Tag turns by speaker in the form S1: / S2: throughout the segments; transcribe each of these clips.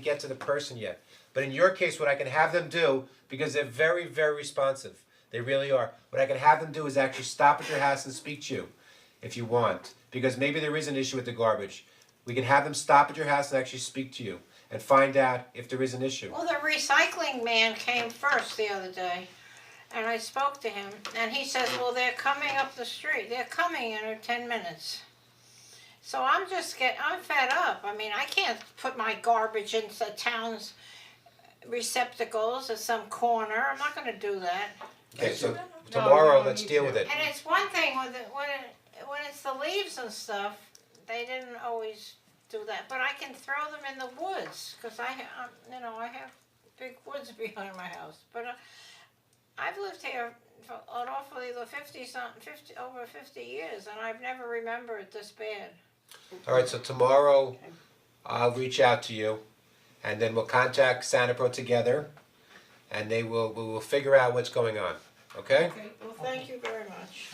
S1: get to the person yet. But in your case, what I can have them do, because they're very, very responsive, they really are, what I can have them do is actually stop at your house and speak to you if you want. Because maybe there is an issue with the garbage. We can have them stop at your house and actually speak to you and find out if there is an issue.
S2: Well, the recycling man came first the other day, and I spoke to him, and he says, "Well, they're coming up the street. They're coming in ten minutes." So I'm just get I'm fed up. I mean, I can't put my garbage into the town's receptacles at some corner. I'm not going to do that.
S1: Okay, so
S3: No,
S1: tomorrow,
S3: we don't
S1: let's
S3: need
S1: deal
S3: to.
S1: with it.
S2: And it's one thing with it, when it, when it's the leaves and stuff, they didn't always do that. But I can throw them in the woods because I, ha- um, you know, I have big woods behind my house. But uh, I've lived here for an awfully the fifty something, fifty over fifty years, and I've never remembered this bad.
S1: All right, so tomorrow I'll reach out to you and then we'll contact Sanipro together and they will, we will figure out what's going on, okay?
S2: Well, thank you very much.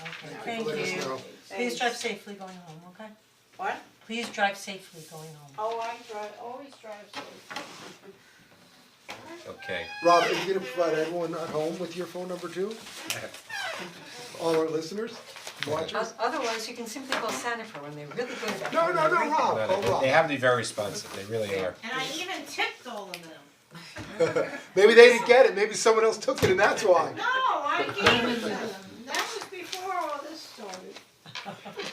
S4: Thank you. Please drive safely going home, okay?
S2: What?
S4: Please drive safely going home.
S2: Oh, I drive. Always drive safe.
S1: Okay.
S5: Rob, are you gonna provide everyone at home with your phone number too? All our listeners, watchers?
S4: Otherwise, you can simply call Sanifer when they're really good about
S5: No, no, no, Rob,
S1: Well,
S5: oh,
S1: They they
S5: Rob.
S1: have to be very responsive, they really are.
S2: And I even tipped all of them.
S5: Maybe they didn't get it, maybe someone else took it and that's why.
S2: No, I gave it to them. That was before all this started.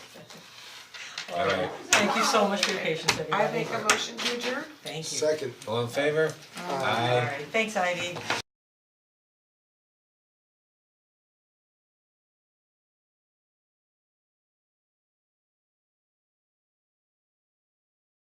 S1: All right,
S4: Thank you so much for your patience, everybody.
S3: I make a motion to adjourn.
S4: Thank you.
S5: Second.
S1: all in favor? Aye.
S4: Thanks, Ivy.